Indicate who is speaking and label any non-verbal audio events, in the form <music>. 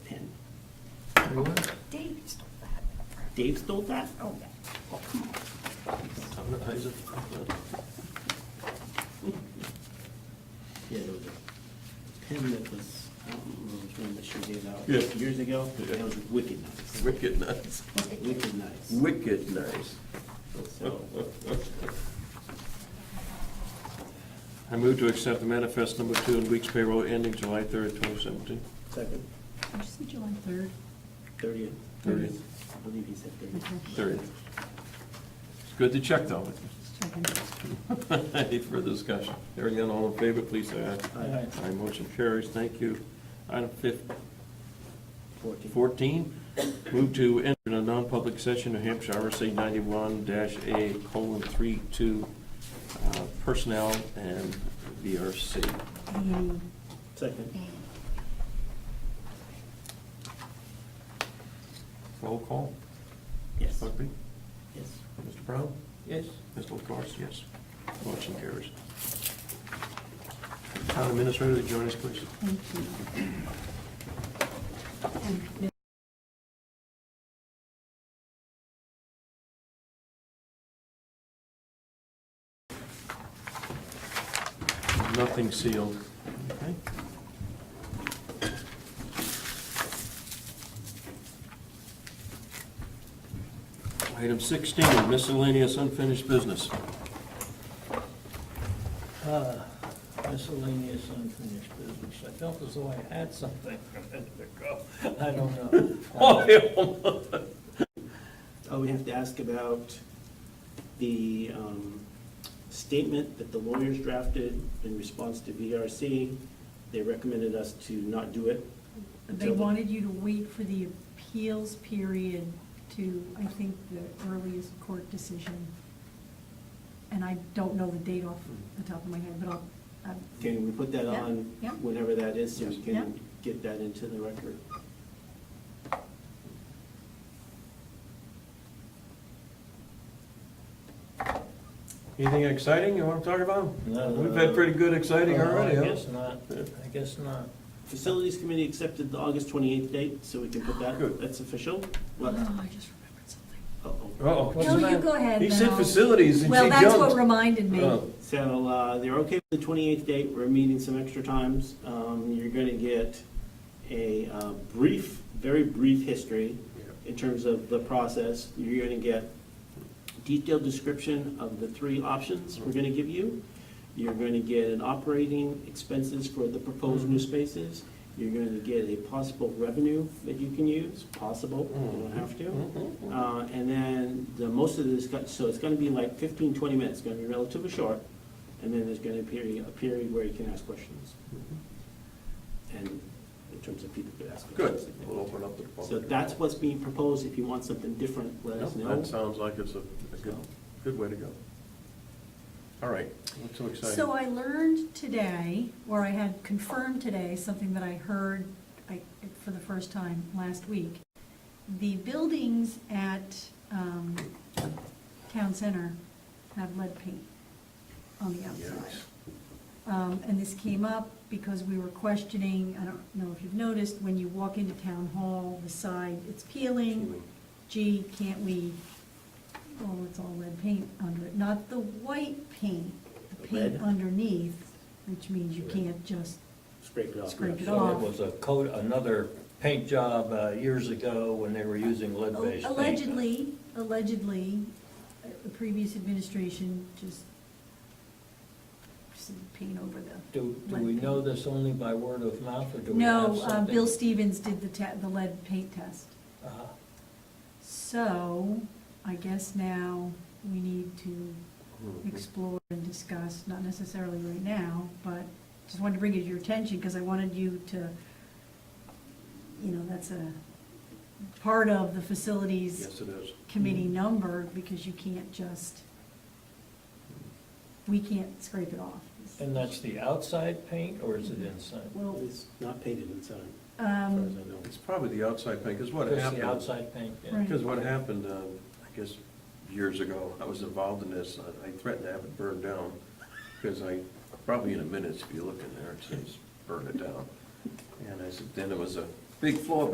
Speaker 1: Dave stole that.
Speaker 2: Dave stole that? Oh, oh, come on. Yeah, there was a pen that was, I don't remember which one that she gave out
Speaker 3: Yeah.
Speaker 2: years ago. That
Speaker 3: Yeah.
Speaker 2: was wicked nice,
Speaker 3: Wicked nice.
Speaker 2: wicked nice.
Speaker 3: Wicked nice.
Speaker 2: So,
Speaker 3: I move to accept the manifest number two in week's payroll ending July 3rd, 2017.
Speaker 2: second,
Speaker 4: Did you say July 3rd?
Speaker 2: thirtieth.
Speaker 3: Thirtieth.
Speaker 2: I believe he said thirtieth.
Speaker 3: Third. It's good to check, though. <laughs>
Speaker 4: Just checking.
Speaker 3: Any further discussion? Hearing none, all in favor, please say aye.
Speaker 2: Aye.
Speaker 3: Aye, motion carries. Thank you. Item fif-
Speaker 2: Fourteenth.
Speaker 3: 14, move to enter in a non-public session, New Hampshire RSA 91-A colon 32, uh, personnel and VRC.
Speaker 4: Any-
Speaker 2: Second.
Speaker 3: Roll call, Ms.
Speaker 2: Yes,
Speaker 3: Buckby?
Speaker 2: yes.
Speaker 3: Mr. Brown?
Speaker 2: Yes.
Speaker 3: Mr. LaCourse, yes. Motion carries. Town Administrator, join us, please.
Speaker 4: Thank you. And Ms.
Speaker 3: Nothing sealed. Okay. Item 16, miscellaneous unfinished business.
Speaker 5: Uh, Miscellaneous unfinished business. I felt as though I had something a minute ago. I don't know.
Speaker 2: Oh, we have to ask about the um, statement that the lawyers drafted in response to VRC. They recommended us to not do it.
Speaker 4: They
Speaker 2: until the-
Speaker 4: wanted you to wait for the appeals period to, I think, the earliest court decision. And I don't know the date off the top of my head, but I'll, I'm-
Speaker 2: Can we put that
Speaker 4: Yeah,
Speaker 2: on
Speaker 4: yeah.
Speaker 2: whenever that is, so we
Speaker 4: Yeah.
Speaker 2: can get that into the record?
Speaker 3: Anything exciting you want to talk about?
Speaker 5: No.
Speaker 3: We've had pretty good exciting
Speaker 5: Well,
Speaker 3: already,
Speaker 5: I
Speaker 3: huh?
Speaker 5: guess not. I guess not.
Speaker 2: Facilities Committee accepted the August 28th date, so we can put that,
Speaker 3: Good.
Speaker 2: that's official? What?
Speaker 4: oh, I just remembered something.
Speaker 2: Uh-oh.
Speaker 3: Uh-oh.
Speaker 5: What's
Speaker 4: No,
Speaker 5: the
Speaker 4: you
Speaker 5: matter?
Speaker 4: go ahead
Speaker 3: He said
Speaker 4: now.
Speaker 3: facilities, and she
Speaker 4: Well,
Speaker 3: jumped.
Speaker 4: that's what reminded me.
Speaker 3: Oh.
Speaker 2: So uh, they're okay with the 28th date, we're meeting some extra times. Um, You're going to get a uh, brief, very brief history in terms of the process. You're going to get detailed description of the three options we're going to give you. You're going to get an operating expenses for the proposed new spaces. You're going to get a possible revenue that you can use, possible, you don't have to.
Speaker 3: Mm-hmm.
Speaker 2: Uh, And then the, most of this, got- so it's gonna be like 15, 20 minutes, it's gonna be relatively short. And then there's gonna be a period where you can ask questions.
Speaker 3: Mm-hmm.
Speaker 2: And in terms of people could ask
Speaker 3: Good,
Speaker 2: questions.
Speaker 3: we'll open up the public.
Speaker 2: So that's what's being proposed. If you want something different, let us
Speaker 3: Yeah,
Speaker 2: know.
Speaker 3: That sounds like it's a a good, good way to go. All right, what's so exciting?
Speaker 4: So I learned today, or I had confirmed today, something that I heard I- for the first time last week. The buildings at um, Town Center have lead paint on the outside.
Speaker 3: Yikes.
Speaker 4: Um, And this came up because we were questioning, I don't know if you've noticed, when you walk into Town Hall, the side, it's peeling.
Speaker 3: Peeling.
Speaker 4: Gee, can't we, oh, it's all lead paint under it, not the white paint, the
Speaker 2: The
Speaker 4: paint
Speaker 2: red.
Speaker 4: underneath, which means you
Speaker 2: Right.
Speaker 4: can't just,
Speaker 2: Scrape it off.
Speaker 4: Scrape it
Speaker 5: So it
Speaker 4: off.
Speaker 5: was a coat, another paint job uh, years ago when they were using lead-based paint.
Speaker 4: oh, allegedly, allegedly, uh, the previous administration just just paint over the.
Speaker 5: Do, do we
Speaker 4: lead
Speaker 5: know
Speaker 4: paint.
Speaker 5: this only by word of mouth, or do we have
Speaker 4: No,
Speaker 5: something?
Speaker 4: uh, Bill Stevens did the te, the lead paint test.
Speaker 5: Uh-huh.
Speaker 4: So I guess now we need to
Speaker 3: Mm-hmm.
Speaker 4: explore and discuss, not necessarily right now, but just wanted to bring it to your attention because I wanted you to, you know, that's a part of the facilities
Speaker 3: Yes, it is.
Speaker 4: committee number because you can't just, we can't scrape it off.
Speaker 5: And that's the outside paint, or is it inside?
Speaker 4: Well,
Speaker 2: It's not painted inside, as far as
Speaker 4: um,
Speaker 2: I know.
Speaker 3: It's probably the outside paint, because what
Speaker 5: Just the
Speaker 3: happened,
Speaker 5: outside paint, yeah.
Speaker 4: Right.
Speaker 3: because what happened, um, I guess, years ago, I was involved in this, I- I threatened to have it burned down, because I, probably in a minute, if you look in there, it says, burn it down. And I said, then there was a big floor